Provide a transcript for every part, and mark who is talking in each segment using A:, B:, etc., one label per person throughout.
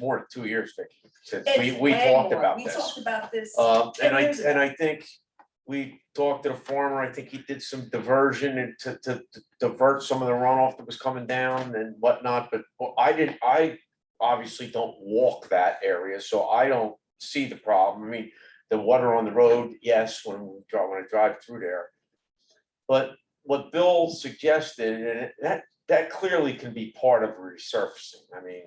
A: more than two years, Vicky, since we,
B: It's
A: we
B: way
A: talked
B: more.
A: about
B: We
A: this.
B: talked about this.
A: Um, and I,
B: ten years ago.
A: and I think we talked to the farmer, I think he did some diversion and to, to to divert some of the runoff that was coming down and whatnot, but well, I didn't, I obviously don't walk that area, so I don't see the problem. I mean, the water on the road, yes, when we drive, when I drive through there. But what Bill suggested, and it- that, that clearly can be part of resurfacing. I mean,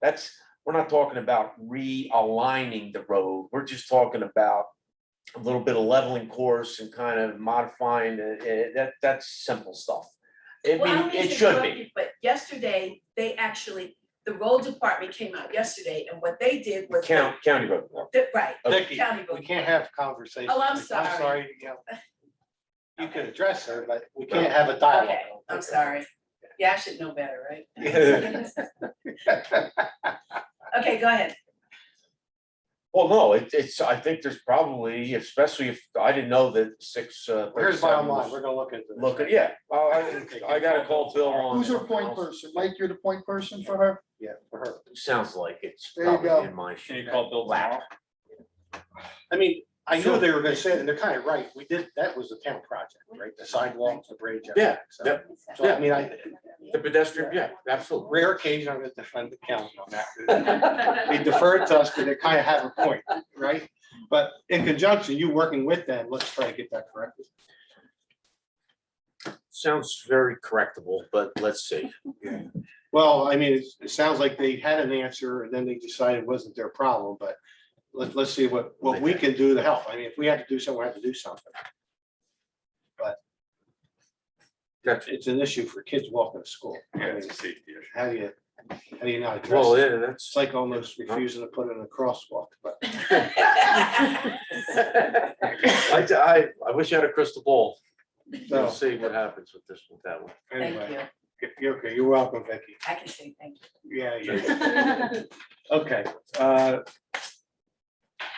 A: that's, we're not talking about realigning the road. We're just talking about a little bit of leveling course and kind of modifying, uh, uh, that, that's simple stuff. I
B: Well, I don't
A: mean,
B: mean
A: it
B: to
A: should
B: interrupt
A: be.
B: you, But yesterday, they actually, the road department came out yesterday and what they did was. they-
A: County, county road. no.
B: the- Right,
C: Vicky,
B: county road.
C: we can't have conversations.
B: Oh, I'm
C: I'm
B: sorry.
C: sorry, you know. You
B: Okay.
C: can address her, but we can't have a dialogue.
B: Okay, I'm sorry. Yeah, I should know better, right? Okay, go ahead.
A: Well, no, it, it's, I think there's probably, especially if, I didn't know that six, uh.
C: Here's bottom
A: 37
C: line, we're
A: was-
C: gonna look at this.
A: Look, at yeah, I, I I gotta call Bill on.
D: Who's her point person? Mike, you're the point person for her?
C: Yeah, for her.
A: Sounds like it's
D: There you go.
A: probably in my.
E: Can you call Bill
A: lap.
E: tomorrow?
C: I mean, I
A: Sure.
C: knew they were gonna say, it, and they're kind of right, we did, that was a town project, right? The sidewalks, the bridge. everything. So-
A: yeah.
C: So I mean, I,
A: The pedestrian, yeah, absolutely.
C: rare occasion I'm gonna defend the county on that. They deferred to us, but they kind of have a point, right? But in conjunction, you working with them, let's try to get that corrected.
A: Sounds very correctable, but let's see.
C: Well, I mean, it's- it sounds like they had an answer and then they decided it wasn't their problem, but let, let's see what, what we can do to help. I mean, if we have to do something, we have to do something. But
A: Gotcha.
C: it's an issue for kids walking to school.
E: Yeah,
C: I mean,
E: it's a safety issue.
C: How do you, how do you not address
A: Well,
C: it?
A: yeah, that's.
C: It's like almost refusing to put in a crosswalk, but
A: I, I, I wish I had a crystal ball. We'll
C: no,
A: see what happens with this, with that one.
B: Thank
C: anyway.
B: you.
C: You're okay, you're welcome, Vicky.
B: I can say thank you.
C: Yeah, yeah.
B: Thank
C: Okay, uh.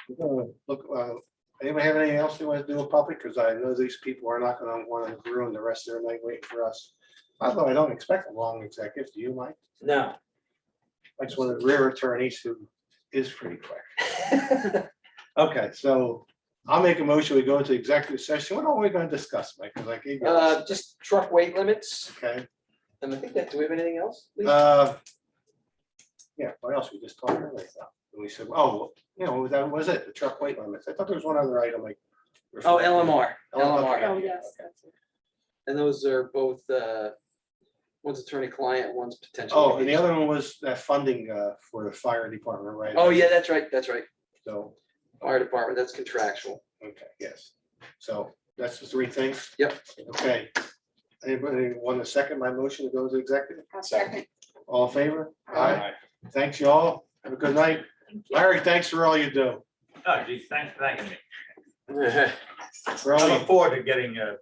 C: we're gonna Look, uh, anybody have anything else they want to do in public? Because I know these people are not gonna want to ruin the rest of their night waiting for us. Although I don't expect a long executive, do you, Mike?
A: No.
C: That's one of the rare attorneys who is pretty quick. Okay, so I'll make a motion. We go into executive session. What are we gonna discuss, Mike? Because I gave you. this,
F: Uh, just truck weight limits,
C: Okay,
F: and I think that, do we have anything else? Lee?
C: uh. Yeah, what else? We just talked earlier. about. And we said, oh, you know, that was it, the truck weight limits. I thought there was one other item like.
F: Oh, LMR, LMR,
C: Oh, yes.
F: and those are both, uh, one's attorney-client, one's potential.
C: Oh, and the
F: litigation.
C: other one was that funding uh, for the fire department, right?
F: Oh, yeah, that's right, that's right,
C: So,
F: fire department, that's contractual.
C: okay, yes. So that's the three things?
F: Yep.
C: Okay. Anybody want to second my motion to go to executive?
B: second.
C: All in favor? Aye. Thanks, y'all. Have a good night.
B: you.
C: Larry, thanks for all you do.
E: Oh, geez, thanks for thanking me.
C: For
E: I
C: all
E: look
C: you-
E: forward to getting, uh,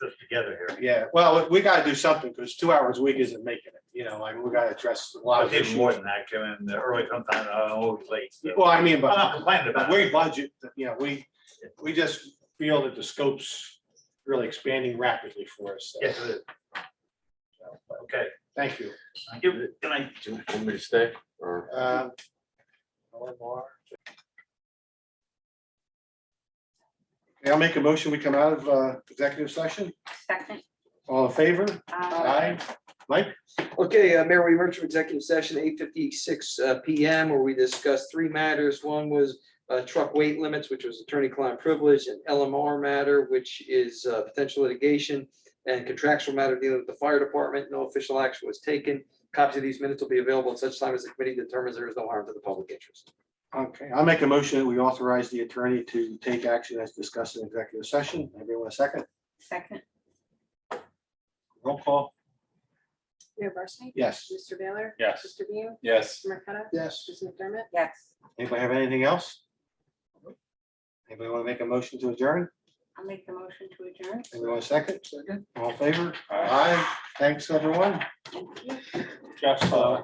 E: this together here.
C: Yeah, well, we gotta do something because two hours a week isn't making it, you know, like we gotta address a lot
E: I
C: of
E: did
C: issues.
E: more than that, Kevin, in the early sometime, I'm always late. so.
C: Well, I mean,
E: I'm
C: but.
E: not complaining
C: But
E: about it.
C: we budget, you know, we, we just feel that the scope's really expanding rapidly for us. so,
E: Yes, it is. Okay,
C: Thank you.
E: thank you. Good night.
A: Do you want me to stay or?
C: Um, one more. Okay, I'll make a motion, we come out of uh, executive session,
B: Second.
C: all in favor? Aye. Mike?
F: Okay, uh, Mayor, we emerged from executive session eight fifty-six PM where we discussed three matters. One was uh, truck weight limits, which was attorney-client privilege, an LMR matter, which is uh, potential litigation, and contractual matter dealing with the fire department. No official action was taken. Copies of these minutes will be available at such time as the committee determines there is no harm to the public interest.
C: Okay, I'll make a motion, that we authorize the attorney to take action as discussed in executive session, everyone a second,
G: Second,
C: roll call,
H: Mayor Barsney?
C: yes.
H: Mr. Baylor?
E: Yes.
H: Mr. Beam?
E: Yes.
H: Mr. Marqueta?
C: Yes.
H: Mr. McDermott?
G: yes,
C: Anybody have anything else? Anybody want to make a motion to adjourn?
G: I'll make the motion to adjourn.
C: Anyone want a second? Second. All in favor? Aye. Thanks, everyone. Jeff, uh,